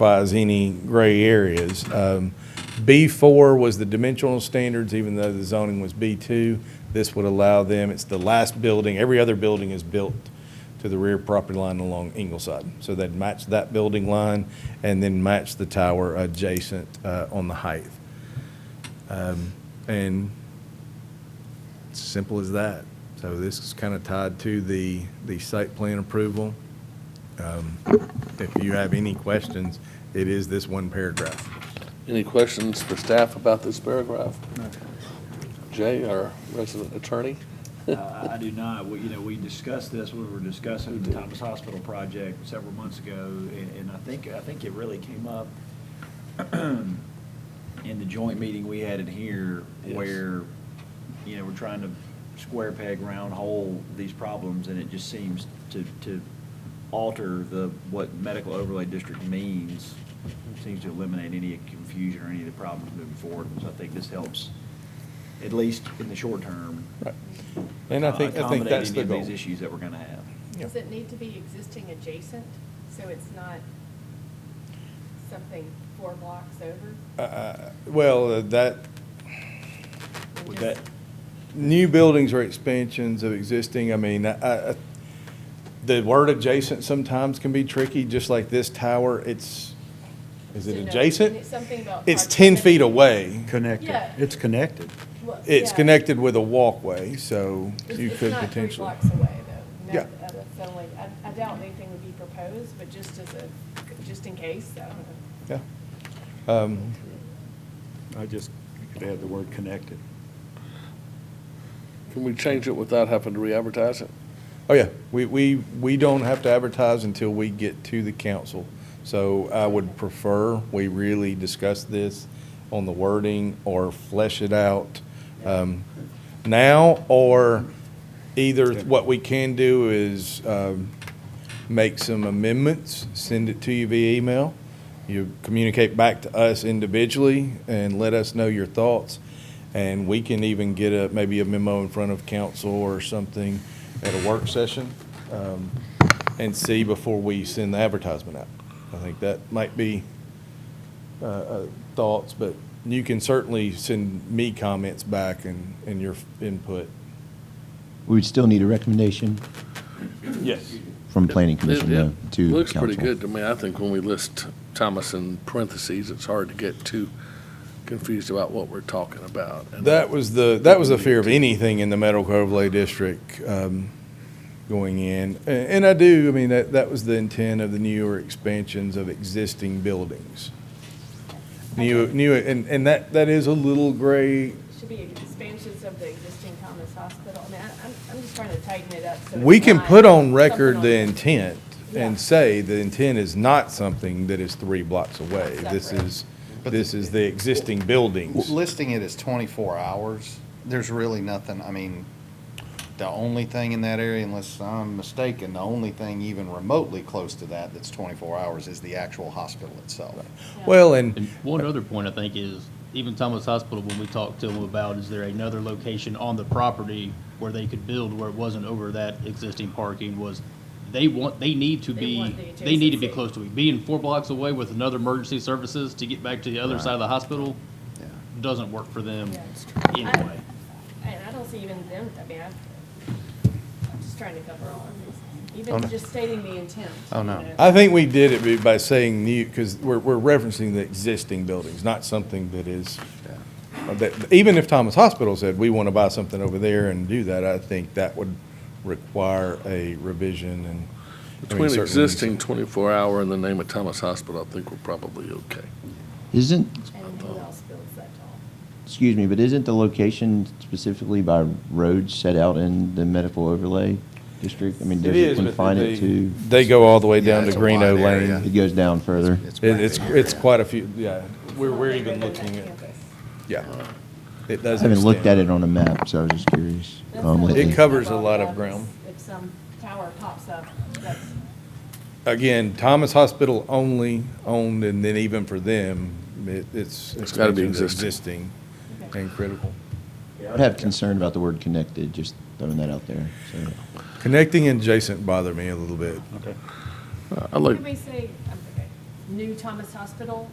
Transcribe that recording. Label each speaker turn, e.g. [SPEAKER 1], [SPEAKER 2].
[SPEAKER 1] identifies any gray areas. Um, B4 was the dimensional standards, even though the zoning was B2. This would allow them, it's the last building, every other building is built to the rear property line along Ingleside. So they'd match that building line and then match the tower adjacent uh, on the height. Um, And it's simple as that. So this is kind of tied to the, the site plan approval. Um, If you have any questions, it is this one paragraph.
[SPEAKER 2] Any questions for staff about this paragraph? Jay, our resident attorney?
[SPEAKER 3] Uh, I do not. We, you know, we discussed this, we were discussing the Thomas Hospital project several months ago, and, and I think, I think it really came up in the joint meeting we had in here,
[SPEAKER 2] Yes.
[SPEAKER 3] where, you know, we're trying to square peg round hole these problems, and it just seems to, to alter the, what medical overlay district means, seems to eliminate any confusion or any of the problems moving forward, so I think this helps, at least in the short term,
[SPEAKER 1] And I think, I think
[SPEAKER 3] accommodate
[SPEAKER 1] that's the
[SPEAKER 3] any of
[SPEAKER 1] goal.
[SPEAKER 3] these issues that we're gonna have.
[SPEAKER 1] Yeah.
[SPEAKER 4] Does it need to be existing adjacent, so it's not something four blocks over?
[SPEAKER 1] Uh, Well, uh, that,
[SPEAKER 4] And
[SPEAKER 3] Would
[SPEAKER 4] just-
[SPEAKER 3] that-
[SPEAKER 1] new buildings or expansions of existing, I mean, I, I, the word adjacent sometimes can be tricky, just like this tower, it's, is it
[SPEAKER 4] So no,
[SPEAKER 1] adjacent?
[SPEAKER 4] it's Something about.
[SPEAKER 1] It's 10 feet
[SPEAKER 4] proximity.
[SPEAKER 1] away.
[SPEAKER 5] Connected,
[SPEAKER 4] Yeah.
[SPEAKER 5] it's connected.
[SPEAKER 4] Well,
[SPEAKER 1] It's
[SPEAKER 4] yeah.
[SPEAKER 1] connected with a walkway, so
[SPEAKER 4] It's-
[SPEAKER 1] you
[SPEAKER 4] it's
[SPEAKER 1] could
[SPEAKER 4] not three
[SPEAKER 1] potentially.
[SPEAKER 4] blocks away, though. No,
[SPEAKER 1] Yeah.
[SPEAKER 4] that- That's only, I, I doubt anything would be proposed, but just as a, just in case, I don't know.
[SPEAKER 1] Yeah. Um,
[SPEAKER 5] I just could add the word connected.
[SPEAKER 2] Can we change it without having to re-advertise it?
[SPEAKER 1] Oh, yeah, we, we, we don't have to advertise until we get to the council. So I would prefer we really discuss this on the wording or flesh it out um, now, or either what we can do is um, make some amendments, send it to you via email. You communicate back to us individually and let us know your thoughts. And we can even get a, maybe a memo in front of council or something at a work session um, and see before we send the advertisement out. I think that might be uh, uh, thoughts, but you can certainly send me comments back and, and your input.
[SPEAKER 6] We would still need a recommendation
[SPEAKER 1] Yes.
[SPEAKER 6] from planning commission
[SPEAKER 2] It-
[SPEAKER 6] though,
[SPEAKER 2] it
[SPEAKER 6] to council.
[SPEAKER 2] Looks pretty good to me. I think when we list Thomas in parentheses, it's hard to get too confused about what we're talking about. And
[SPEAKER 1] That was the, that was the fear of anything in the medical overlay district um, going in. A- And I do, I mean, that, that was the intent of the newer expansions of existing buildings. New, new, and, and that, that is a little gray.
[SPEAKER 4] Should be expansions of the existing Thomas Hospital. I mean, I- I'm, I'm just trying to tighten it up so. it's
[SPEAKER 1] We can
[SPEAKER 4] not
[SPEAKER 1] put on record
[SPEAKER 4] something
[SPEAKER 1] the
[SPEAKER 4] on-
[SPEAKER 1] intent
[SPEAKER 4] Yeah.
[SPEAKER 1] and say the intent is not something that is three blocks away. This
[SPEAKER 4] Separate.
[SPEAKER 1] is, this is the existing buildings.
[SPEAKER 7] Listing it as 24 hours, there's really nothing, I mean, the only thing in that area, unless I'm mistaken, the only thing even remotely close to that that's 24 hours is the actual hospital itself.
[SPEAKER 1] Well, and
[SPEAKER 8] And one other point I think is, even Thomas Hospital, when we talked to them about, is there another location on the property where they could build where it wasn't over that existing parking was, they want, they need to
[SPEAKER 4] They
[SPEAKER 8] be,
[SPEAKER 4] want the
[SPEAKER 8] they need to be
[SPEAKER 4] adjacency.
[SPEAKER 8] close to it. Being four blocks away with another emergency services to get back to the other side of the hospital
[SPEAKER 7] Yeah.
[SPEAKER 8] doesn't work for them
[SPEAKER 4] Yeah.
[SPEAKER 8] anyway.
[SPEAKER 4] And I don't see even them, I mean, I- I'm just trying to cover all of this,
[SPEAKER 7] Oh, no.
[SPEAKER 4] even just stating the intent.
[SPEAKER 7] Oh,
[SPEAKER 4] you
[SPEAKER 7] no.
[SPEAKER 4] know.
[SPEAKER 1] I think we did it be- by saying new, because we're, we're referencing the existing buildings, not something that is, that, even if Thomas Hospital said, we want to buy something over there and do that, I think that would require a revision and. I mean,
[SPEAKER 2] Between
[SPEAKER 1] certainly-
[SPEAKER 2] existing 24-hour and the name of Thomas Hospital, I think we're probably okay.
[SPEAKER 6] Isn't,
[SPEAKER 4] And who else builds that tall?
[SPEAKER 6] excuse me, but isn't the location specifically by roads set out in the medical overlay district? I mean, does it confine it to,
[SPEAKER 1] They go all the way
[SPEAKER 7] Yeah,
[SPEAKER 1] down to
[SPEAKER 7] it's a
[SPEAKER 1] Greeno
[SPEAKER 7] wide area.
[SPEAKER 1] Lane.
[SPEAKER 6] it goes down further?
[SPEAKER 1] It- It's, it's quite a few, yeah, we're,
[SPEAKER 4] Well,
[SPEAKER 1] we're
[SPEAKER 4] they
[SPEAKER 1] even
[SPEAKER 4] live on
[SPEAKER 1] looking
[SPEAKER 4] that
[SPEAKER 1] at,
[SPEAKER 4] campus.
[SPEAKER 1] yeah. It
[SPEAKER 6] I
[SPEAKER 1] does.
[SPEAKER 6] haven't looked at
[SPEAKER 1] extend.
[SPEAKER 6] it on a map, so I was just curious.
[SPEAKER 4] That's
[SPEAKER 6] um,
[SPEAKER 4] not
[SPEAKER 6] what
[SPEAKER 1] It
[SPEAKER 6] the-
[SPEAKER 4] like
[SPEAKER 1] covers a
[SPEAKER 4] above
[SPEAKER 1] lot of
[SPEAKER 4] others.
[SPEAKER 1] ground.
[SPEAKER 4] If some tower pops up, that's,
[SPEAKER 1] Again, Thomas Hospital only owned, and then even for them, it, it's.
[SPEAKER 2] It's gotta be
[SPEAKER 1] expansions
[SPEAKER 2] existing.
[SPEAKER 4] okay.
[SPEAKER 1] And critical.
[SPEAKER 6] I would have concern about the word connected, just throwing that out there, so.
[SPEAKER 1] Connecting and adjacent bother me a little bit.
[SPEAKER 5] Okay.
[SPEAKER 2] I like,
[SPEAKER 4] Could we say, I'm- okay, new Thomas Hospital